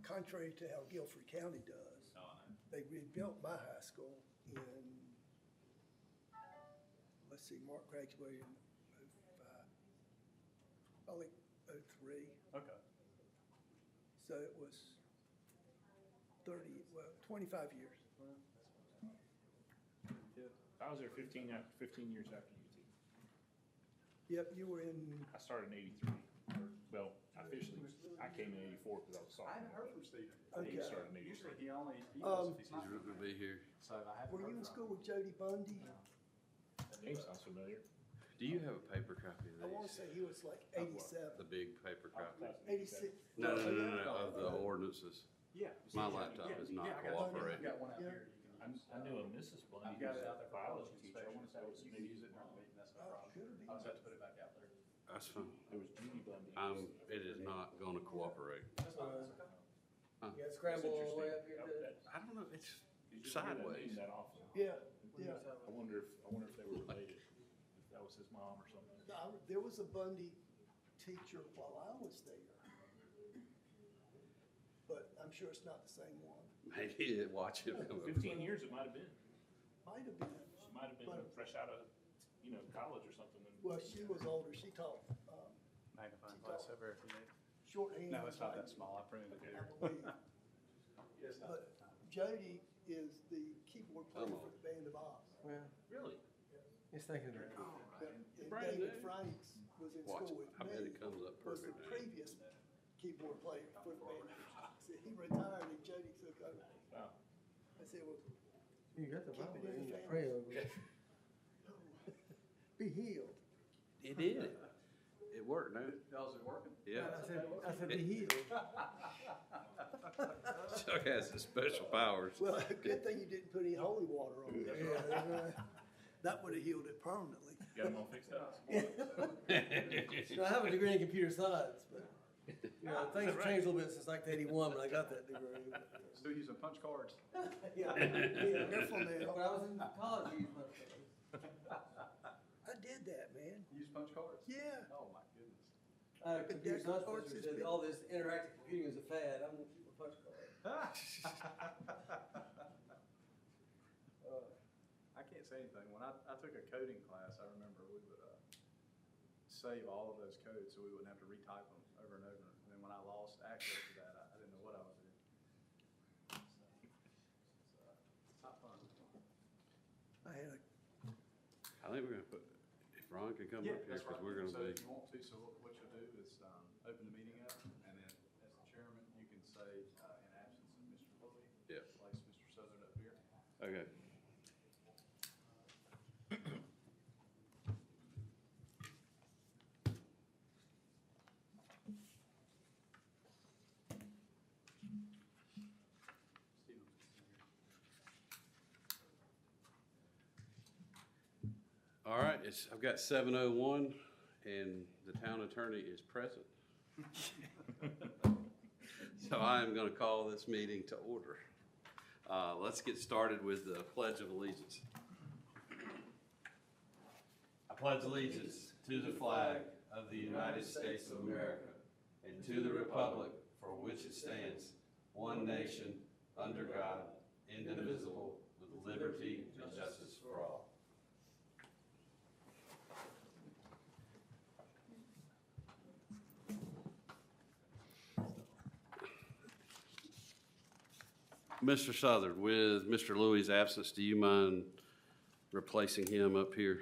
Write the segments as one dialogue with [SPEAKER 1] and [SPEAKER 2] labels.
[SPEAKER 1] contrary to how Guilford County does.
[SPEAKER 2] No, Oh, I know.
[SPEAKER 1] They rebuilt my high school in, let's see, Mark graduated in oh-five, probably oh-three.
[SPEAKER 2] Okay.
[SPEAKER 1] So it was thirty, well, twenty-five years.
[SPEAKER 2] I was there fifteen, af- fifteen years after UT.
[SPEAKER 1] Yep, you were in,
[SPEAKER 2] I started in eighty-three, or, well, officially, I came in eighty-four because I was
[SPEAKER 3] I
[SPEAKER 2] sophomore.
[SPEAKER 3] haven't heard from Stephen.
[SPEAKER 2] but Dave
[SPEAKER 1] Okay.
[SPEAKER 2] started in
[SPEAKER 3] Usually
[SPEAKER 2] eighty-three.
[SPEAKER 3] he only, he
[SPEAKER 1] Um,
[SPEAKER 3] knows if he's not.
[SPEAKER 4] You're gonna be here.
[SPEAKER 3] So I haven't
[SPEAKER 1] were you in
[SPEAKER 3] heard
[SPEAKER 1] school
[SPEAKER 3] from him.
[SPEAKER 1] with Jody Bundy?
[SPEAKER 2] Name sounds familiar.
[SPEAKER 4] Do you have a paper copy of these?
[SPEAKER 1] I want to say he was like
[SPEAKER 2] what?
[SPEAKER 4] The
[SPEAKER 1] eighty-seven,
[SPEAKER 4] big paper copy.
[SPEAKER 1] eighty-six.
[SPEAKER 4] No, no, no, no, no, of the ordinances.
[SPEAKER 3] Yeah.
[SPEAKER 4] My laptop is not
[SPEAKER 3] Yeah, I got one.
[SPEAKER 4] cooperating.
[SPEAKER 3] I've got one out
[SPEAKER 1] Yeah.
[SPEAKER 3] here you can
[SPEAKER 2] I'm-
[SPEAKER 3] use.
[SPEAKER 2] I knew a Mrs. Blondie,
[SPEAKER 3] I've
[SPEAKER 2] who
[SPEAKER 3] got
[SPEAKER 2] was
[SPEAKER 3] it out
[SPEAKER 2] a
[SPEAKER 3] there. for
[SPEAKER 2] biology
[SPEAKER 3] inspection,
[SPEAKER 2] teacher. I want to say it was
[SPEAKER 3] so You can use
[SPEAKER 2] Judy.
[SPEAKER 3] it in our meeting, that's no
[SPEAKER 1] Oh,
[SPEAKER 3] problem.
[SPEAKER 1] good.
[SPEAKER 3] I was about to put it back out there.
[SPEAKER 4] That's fine.
[SPEAKER 2] It was Judy Bundy.
[SPEAKER 4] Um, it is not gonna cooperate.
[SPEAKER 3] That's fine, that's okay.
[SPEAKER 5] You got scramble all the way up here
[SPEAKER 2] Oh, That-
[SPEAKER 5] to.
[SPEAKER 2] that-
[SPEAKER 4] I don't know, it's
[SPEAKER 2] you just hear that name
[SPEAKER 4] sideways.
[SPEAKER 2] That often.
[SPEAKER 1] Yeah, yeah.
[SPEAKER 2] I wonder if, I wonder if they were related, if that was his mom or something.
[SPEAKER 1] I- There was a Bundy teacher while I was there. But I'm sure it's not the same one.
[SPEAKER 4] Maybe it- watch it come up.
[SPEAKER 2] Fifteen years it might have been.
[SPEAKER 1] Might have been.
[SPEAKER 2] She might have been
[SPEAKER 1] But-
[SPEAKER 2] fresh out of, you know, college or something. and-
[SPEAKER 1] Well, she was older. She taught um,
[SPEAKER 3] Magnifying
[SPEAKER 1] glass
[SPEAKER 3] over if you need.
[SPEAKER 1] shorthand.
[SPEAKER 3] No, it's not
[SPEAKER 1] type,
[SPEAKER 3] that small, I printed it
[SPEAKER 1] I
[SPEAKER 3] here.
[SPEAKER 1] believe.
[SPEAKER 3] It's not that time.
[SPEAKER 1] But Jody is the keyboard player
[SPEAKER 4] Hello.
[SPEAKER 1] for the Band of Oz.
[SPEAKER 5] Well,
[SPEAKER 2] Really?
[SPEAKER 5] it's thinking of
[SPEAKER 1] And
[SPEAKER 2] Brand
[SPEAKER 1] David
[SPEAKER 2] new.
[SPEAKER 1] Franks was in
[SPEAKER 4] Watch
[SPEAKER 1] school
[SPEAKER 4] it.
[SPEAKER 1] with
[SPEAKER 4] I bet
[SPEAKER 1] me.
[SPEAKER 4] it comes up
[SPEAKER 1] Was the
[SPEAKER 4] perfect. now.
[SPEAKER 1] previous keyboard player for the Band of Oz. So He retired and Jody took over.
[SPEAKER 2] Wow.
[SPEAKER 1] I said, well,
[SPEAKER 5] You got the
[SPEAKER 1] Keep it
[SPEAKER 5] Bible
[SPEAKER 1] in
[SPEAKER 5] in
[SPEAKER 1] the
[SPEAKER 5] your prayer over it.
[SPEAKER 1] be healed.
[SPEAKER 4] It did. It worked, no?
[SPEAKER 3] How's it working?
[SPEAKER 5] I
[SPEAKER 4] Yeah.
[SPEAKER 5] said, I said, be healed.
[SPEAKER 4] Chuck has his special powers.
[SPEAKER 1] Well, good thing you didn't put any holy water on it. That would have healed it permanently.
[SPEAKER 2] Got them all fixed up.
[SPEAKER 5] You know, I have a degree in computer science, but, you know, things have changed a little bit since like eighty-one when I got that degree. but-
[SPEAKER 3] Still using punch cards.
[SPEAKER 5] Yeah, yeah.
[SPEAKER 1] Careful
[SPEAKER 5] When
[SPEAKER 1] now.
[SPEAKER 5] I was in college, I used my.
[SPEAKER 1] I did that, man.
[SPEAKER 3] Use punch cards?
[SPEAKER 1] Yeah.
[SPEAKER 3] Oh, my goodness.
[SPEAKER 5] I had a computer
[SPEAKER 1] that's- or
[SPEAKER 5] science
[SPEAKER 1] it's
[SPEAKER 5] professor
[SPEAKER 1] just
[SPEAKER 5] said
[SPEAKER 1] been-
[SPEAKER 5] all this interactive computing is a fad. I'm gonna keep a punch card.
[SPEAKER 3] I can't say anything. When I, I took a coding class, I remember we would, uh, save all of those codes so we wouldn't have to retype them over and over. And then when I lost access to that, I, I didn't know what I was doing. So, It's not fun.
[SPEAKER 1] I had a,
[SPEAKER 4] I think we're gonna put, if Ron can come
[SPEAKER 3] Yeah,
[SPEAKER 4] up here,
[SPEAKER 3] that's
[SPEAKER 4] cause
[SPEAKER 3] right.
[SPEAKER 4] we're
[SPEAKER 3] So
[SPEAKER 4] gonna
[SPEAKER 3] if
[SPEAKER 4] be,
[SPEAKER 3] you want to, so what- what you'll do is, um, open the meeting up, and then as the chairman, you can say, uh, in absence of Mr. Willoughby.
[SPEAKER 4] Yeah.
[SPEAKER 3] Place Mr. Southern up here.
[SPEAKER 4] okay.
[SPEAKER 3] Stephen. here.
[SPEAKER 4] All right, it's, I've got seven oh one, and the town attorney is present. So I am gonna call this meeting to order. Uh, let's get started with the Pledge of Allegiance. I pledge allegiance to the flag of the United States of America and to the republic for which it stands, one nation, under God, indivisible, with liberty and justice for all. Mr. Southard, with Mr. Louis' absence, do you mind replacing him up here?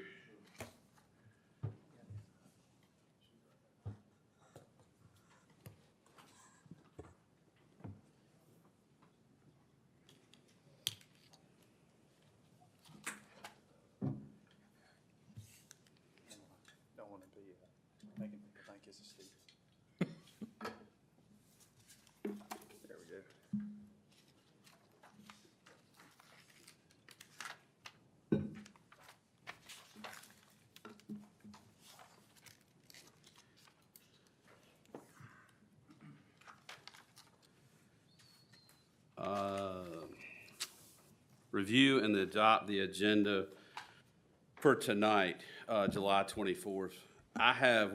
[SPEAKER 3] Don't want to be uh, making people think it's a Steve. There we go.
[SPEAKER 4] Uh, Review and adopt the agenda for tonight, uh, July 24th. I have